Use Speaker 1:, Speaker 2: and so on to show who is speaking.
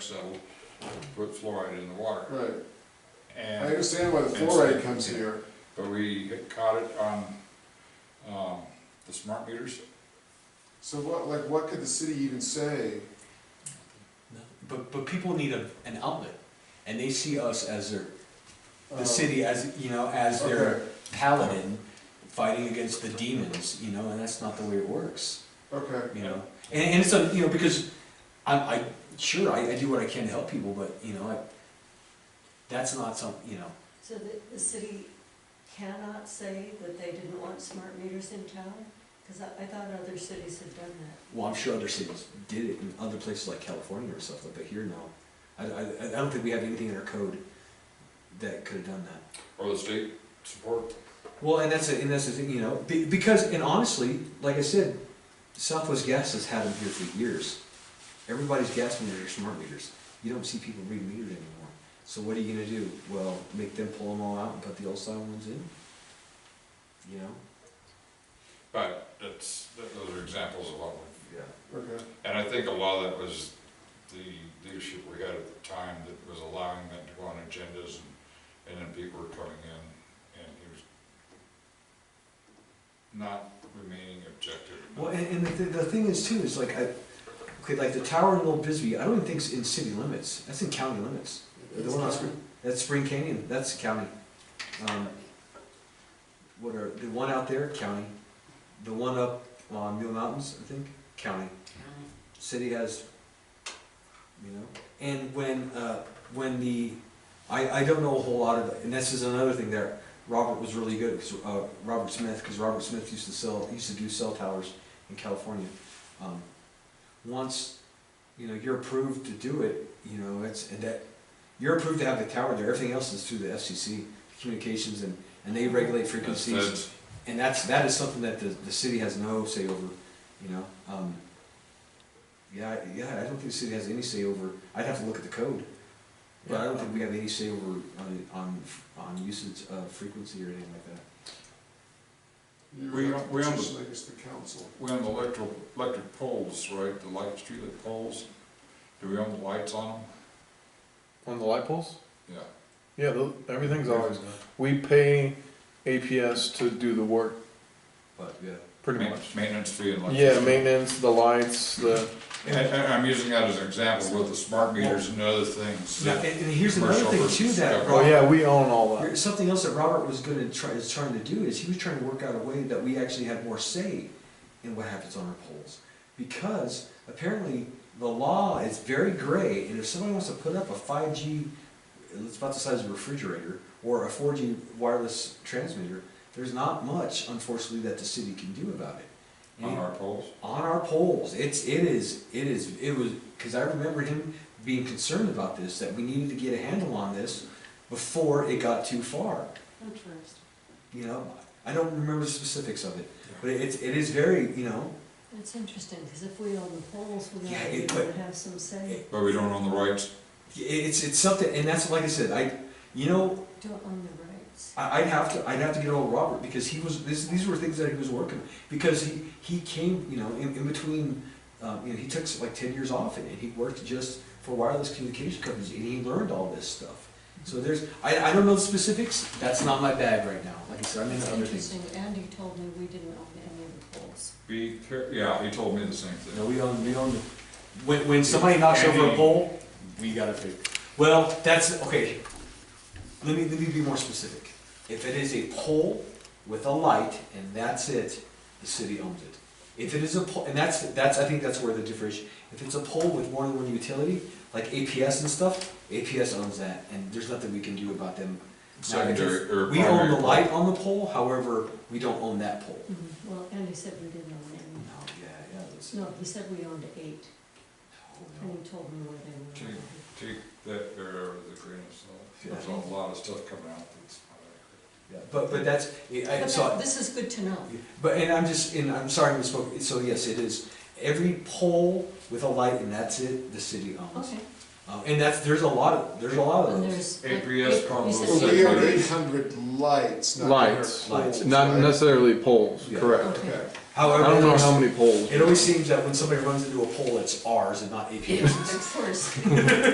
Speaker 1: so put fluoride in the water.
Speaker 2: Right, I
Speaker 1: And,
Speaker 2: understand why the
Speaker 1: And-
Speaker 2: fluoride comes here,
Speaker 1: but we caught it on, um, the smart meters.
Speaker 2: so what, like, what could the city even say?
Speaker 3: But, but people need a, an outlet, and they see us as their,
Speaker 2: Um,
Speaker 3: the city as, you know, as
Speaker 2: Okay,
Speaker 3: their paladin fighting against the demons, you know, and that's not the way it works,
Speaker 2: okay,
Speaker 3: you know? And, and it's, a- you know, because I, I, sure, I, I do what I can to help people, but, you know, I, that's not some, you know,
Speaker 4: So the, the city cannot say that they didn't want smart meters in town? Because I, I thought other cities had done that.
Speaker 3: well, I'm sure other cities did it in other places like California or stuff, but here, no. I, I, I don't think we have anything in our code that could have done that.
Speaker 1: Or the state support.
Speaker 3: Well, and that's a, and that's the thing, you know, be- because and honestly, like I said, Southwest Gas has had them here for years. Everybody's gas meters are smart meters. You don't see people read meters anymore. So what are you gonna do? Well, make them pull them all out and put the old style ones in. You know.
Speaker 1: But that's, that- those are examples of what, we-
Speaker 3: Yeah.
Speaker 2: okay,
Speaker 1: and I think a lot of that was the leadership we had at the time that was allowing that to go on agendas and, and then people were coming in and he was not remaining objective.
Speaker 3: Well, and, and the, the thing is too is like I, okay, like the tower in Old Bisbee. I don't even think it's in city limits. That's in county limits. The one on Spring, that's Spring Canyon. That's county. Um, what are the one out there? County. The one up on Mule Mountains, I think. County. City has. You know, and when uh, when the, I, I don't know a whole lot of, and this is another thing there. Robert was really good because uh, Robert Smith, because Robert Smith used to sell used to do cell towers in California. Um, once you know you're approved to do it, you know it's and that you're approved to have the tower there. Everything else is through the FCC communications and and they regulate
Speaker 1: That's-
Speaker 3: frequencies
Speaker 1: that's-
Speaker 3: and that's that is something that the, the city has no say over, you know. Um, yeah, I- yeah, I don't think the city has any say over. I'd have to look at the code, but I don't think we have any say over on on, on usage of frequency or anything like that.
Speaker 2: you
Speaker 1: We-
Speaker 2: would have to
Speaker 1: we own the-
Speaker 2: petition, I guess, the council.
Speaker 1: We own the electro, electric poles, right, the light, streetlight poles, do we own the lights on
Speaker 5: On the light poles?
Speaker 1: them? Yeah.
Speaker 5: Yeah, the, everything's always. We pay APS to do the work,
Speaker 3: But yeah,
Speaker 5: pretty
Speaker 1: Ma-
Speaker 5: much.
Speaker 1: Maintenance fee and electricity.
Speaker 5: Yeah, maintenance, the lights, the.
Speaker 1: And, and I'm using that as an example with the smart meters and other things.
Speaker 3: Now,
Speaker 1: that-
Speaker 3: and, and here's another
Speaker 1: Commercial
Speaker 3: thing too
Speaker 1: versus
Speaker 3: that
Speaker 1: separate.
Speaker 5: Oh
Speaker 3: Robert,
Speaker 5: yeah, we own all that.
Speaker 3: something else that Robert was going to try is trying to do is he was trying to work out a way that we actually had more say in what happens on our polls because apparently the law is very gray and if somebody wants to put up a 5G it's about the size of a refrigerator or a 4G wireless transmitter, there's not much, unfortunately, that the city can do about it.
Speaker 1: On
Speaker 3: And
Speaker 1: our poles,
Speaker 3: on our polls, it's it is it is it was because I remember him being concerned about this that we needed to get a handle on this before it got too far.
Speaker 4: Interesting.
Speaker 3: You know, I don't remember the specifics of it, but it's it is very you know
Speaker 4: It's interesting, because if we own the poles, we
Speaker 3: Yeah,
Speaker 4: might
Speaker 3: it-
Speaker 4: be able to have some say.
Speaker 1: but we don't own the rights,
Speaker 3: it's it's something and that's like I said I you know
Speaker 4: Don't own the rights.
Speaker 3: I- I'd have to, I'd have to get old Robert because he was, this, these were things that he was working, because he, he came, you know, in, in between, um, you know, he took like ten years off and, and he worked just for wireless communication companies and he learned all this stuff. So there's, I, I don't know the specifics, that's not my bag right now, like I said, I'm
Speaker 4: It's
Speaker 3: into other things.
Speaker 4: interesting, Andy told me we didn't own any of the poles.
Speaker 1: be, care- yeah, he told me the same
Speaker 3: No,
Speaker 1: thing.
Speaker 3: we own, we own, the- when, when somebody knocks over a
Speaker 1: Andy.
Speaker 3: pole, we gotta fix. Well, that's, okay, let me, let me be more specific. If it is a pole with a light and that's it, the city owns it. If it is a pole, and that's, that's, I think that's where the differentiation, if it's a pole with more than one utility, like APS and stuff, APS owns that and there's nothing we can do about them. Now, if it's-
Speaker 1: Secondary or
Speaker 3: We own the
Speaker 1: primary.
Speaker 3: light on the pole, however, we don't own that pole.
Speaker 4: Well, Andy said we didn't own
Speaker 3: No,
Speaker 4: any.
Speaker 3: yeah, yeah, that's.
Speaker 4: No, he said we owned eight,
Speaker 3: no, no.
Speaker 4: and he told me where they were.
Speaker 1: Take, take that error with a grain of salt, there's a lot of stuff coming out that's not accurate.
Speaker 3: Yeah, But, but that's, I, I
Speaker 4: But
Speaker 3: saw,
Speaker 4: that- this is good to know.
Speaker 3: but, and I'm just, and I'm sorry I misspoke, so yes, it is, every pole with a light and that's it, the city owns.
Speaker 4: Okay.
Speaker 3: Uh, And that's, there's a lot of, there's a lot of
Speaker 4: And
Speaker 3: those.
Speaker 4: there's. like,
Speaker 1: APS
Speaker 4: eight-
Speaker 1: probably
Speaker 4: he said
Speaker 2: Well,
Speaker 1: said
Speaker 2: we
Speaker 4: eight
Speaker 2: own
Speaker 1: lights.
Speaker 2: eight hundred lights, not
Speaker 5: Lights.
Speaker 2: 800 poles,
Speaker 3: Lights.
Speaker 5: Not
Speaker 2: right?
Speaker 5: necessarily poles,
Speaker 3: Yeah.
Speaker 5: correct.
Speaker 2: Okay,
Speaker 5: I
Speaker 3: However,
Speaker 5: don't
Speaker 3: it
Speaker 5: know
Speaker 3: always-
Speaker 5: how many poles.
Speaker 3: it always seems that when somebody runs into a pole, it's ours and not APS's.
Speaker 4: Of course.